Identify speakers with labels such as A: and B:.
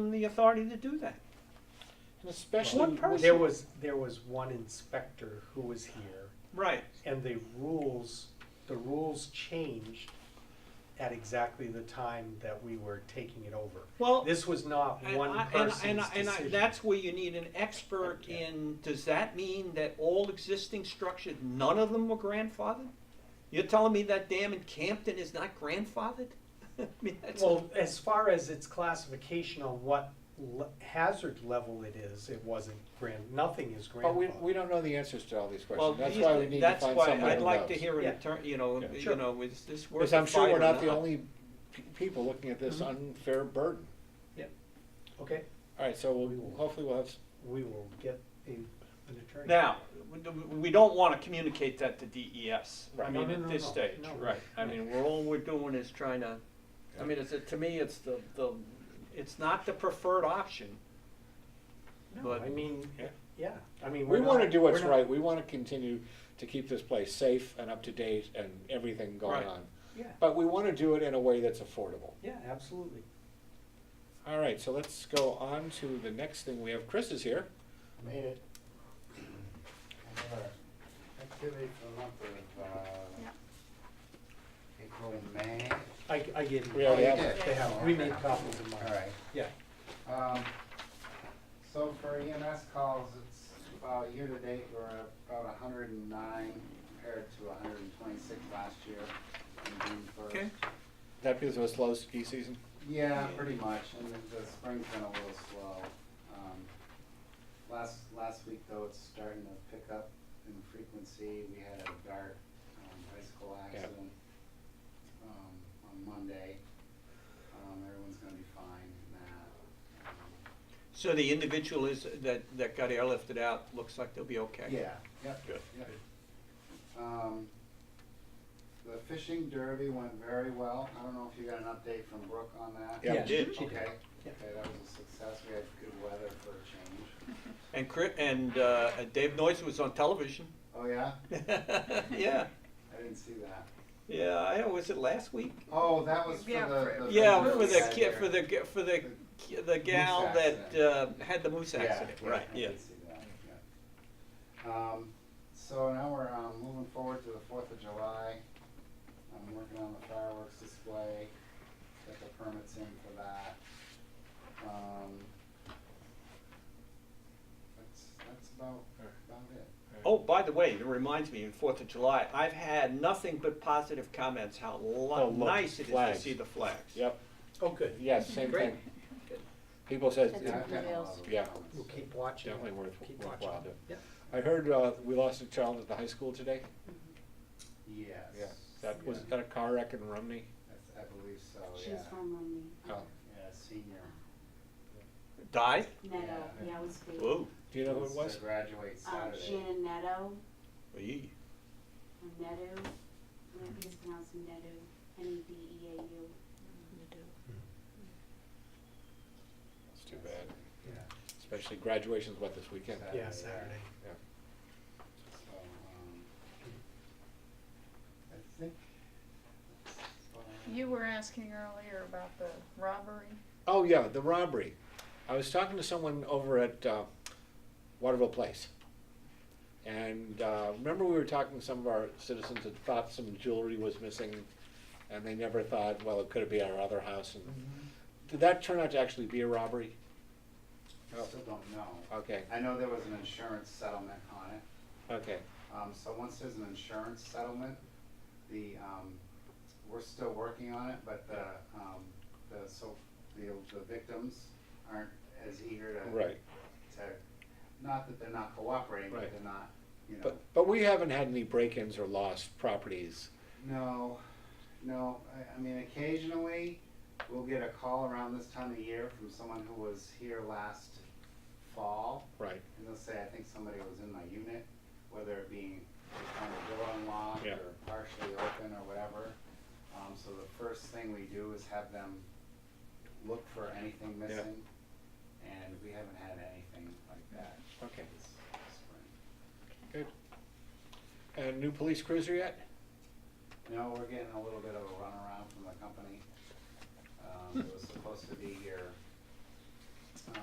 A: them the authority to do that.
B: And especially,
A: One
B: when-
C: There
A: person.
C: was, there was one inspector who was here,
A: Right.
C: and the rules, the rules changed at exactly the time that we were taking it over.
A: Well,
C: This was not
A: and
C: one
A: I- and, I-
C: person's
A: and, I- and I-
C: decision.
A: that's where you need an expert
C: Yeah.
A: in, does that mean that all existing structures, none of them were grandfathered? You're telling me that dam in Campton is not grandfathered? I mean, that's,
C: Well, as far as its classification on what le- hazard level it is, it wasn't grand, nothing is
B: but we,
C: grandfathered.
B: we don't know the answers to all these
A: well,
B: questions, that's why we
A: these-
B: need to
A: that's
B: find
A: why
B: someone who knows.
A: I'd like to hear an
C: Yeah.
A: attorney, you know,
B: Yeah.
A: you
C: Sure.
A: know, is this worth
B: Because
A: the
B: I'm sure
A: fight
B: we're
A: or Mm-hmm.
B: not the only p- people looking at this unfair burden.
C: Okay,
B: All right, so we'll, hopefully we'll have, s-
C: we will get a, an attorney.
A: Now, we- we don't wanna communicate that to DES, I
B: Right.
A: mean,
C: No, no,
A: at
C: no,
A: this
C: no,
A: stage,
C: no.
A: right, I mean, we're, all we're doing is trying to, I mean, it's, a- to me, it's the, the, it's not the preferred option.
C: No,
A: But-
C: I mean,
B: Yeah.
C: yeah, I mean.
B: we
C: we're
B: want to
C: not-
B: do what's
C: we're not-
B: right, we want to continue to keep this place safe and up to date and everything going
A: Right.
B: on.
C: Yeah,
B: But we want to do it in a way that's affordable.
C: yeah, absolutely.
B: All right, so let's go on to the next thing, we have Chris is here.
D: Made it. I have a Activity for the month of, uh, April, May.
C: I, I gave them.
B: We already have
D: it.
C: They have, we made copies of mine.
D: Oh, Alright.
C: Yeah.
D: Um, so for EMS calls, it's about year-to-date, we're about hundred and nine compared to hundred and twenty-six last year in June first.
A: Okay.
B: That because it was slow ski season?
D: Yeah, pretty much, and the- the spring's been a little slow. Um, Last, last week though, it's starting to pick up in frequency. We had a dart um, bicycle accident um, on Monday. Um, Everyone's gonna be fine in that. Um,
A: So the individual is, that, that got airlifted out, looks like they'll be okay?
D: Yeah, yep,
B: Good.
D: yep. Um, The fishing derby went very well. I don't know if you got an update from Brooke on that?
B: Yeah.
A: She did, she did.
D: Okay, okay, that was a success. We had good weather for a change.
A: And Chris, and, uh, Dave Noyce was on television.
D: Oh, yeah?
A: Yeah,
D: I didn't see that.
A: yeah, I, was it last week?
D: Oh, that was for
E: Yeah,
D: the.
E: for-
D: the
A: Yeah,
D: vendor
A: for
D: we
A: the
D: had
A: kid,
D: there.
A: for the, g- for the, ki- the gal
D: Moose
A: that, uh,
D: accident.
A: had the moose
D: Yeah,
A: accident, right,
D: I
A: yeah.
D: did see that, yeah. Um, so now we're, um, moving forward to the Fourth of July. I'm working on the fireworks display, get the permits in for that. Um, that's, that's about, about it.
A: Oh, by the way, it reminds me, in Fourth of July, I've had nothing but positive comments, how
B: Oh,
A: lo-
B: look,
A: nice it is to
B: flags.
A: see the flags.
B: Yep,
C: Oh, good.
B: yes, same
A: Great.
B: thing. People said, uh,
E: That's
B: it-
D: Yeah, I've gotten a lot
E: videos.
D: of
B: Yeah.
D: comments.
C: We'll keep watching.
B: Definitely worth-
C: Keep
B: worthwhile
C: watching.
B: to-
C: Yeah.
B: I heard, uh, we lost a child at the high school today.
D: Yes.
B: That was,
D: Yeah.
B: that a car wreck in Romney?
D: That's- I believe so, Oh, yeah.
E: She's from um, Romney.
B: Oh.
D: Yeah, senior.
A: Died?
E: Netto,
D: Yeah.
E: yeah, it was sweet.
A: Whoa,
B: Do you know who it
D: Wants
B: was?
D: To graduate
E: Um,
D: Saturday.
E: Shannon Netto,
A: Eee.
E: or Netto, I think it's pronounced Netto, E N-E-D-E-A-U.
B: It's too bad,
D: Yeah.
B: especially graduation's what this weekend.
D: Saturday.
C: Yeah, Saturday.
B: Yeah.
D: So, um, I think. that's, um,
F: You were asking earlier about the robbery.
B: Oh, yeah, the robbery. I was talking to someone over at uh, Waterville Place. And uh, remember, we were talking to some of our citizens that thought some jewelry was missing, and they never thought, well, it could be our other house. And Did that turn out to actually be a robbery?
D: I still don't know.
B: Okay,
D: I know there was an insurance settlement on it.
B: okay.
D: Um, so once there's an insurance settlement, the, um, we're still working on it, but the, um, the, so, the, the victims aren't as eager to.
B: Right.
D: To, not that they're not cooperating, but
B: Right.
D: they're not, you know.
B: But, but we haven't had any break-ins or lost properties.
D: No, no, I, I mean, occasionally, we'll get a call around this time of year from someone who was here last fall,
B: Right,
D: and they'll say, I think somebody was in my unit, whether it being kind of door unlocked
B: Yeah.
D: or partially open or whatever. Um, so the first thing we do is have them look for anything
B: Yeah.
D: missing, and we haven't had anything like that
B: okay,
D: this spring.
B: good. And new police cruiser yet?
D: No, we're getting a little bit of a runaround from the company. Um, it was supposed to be here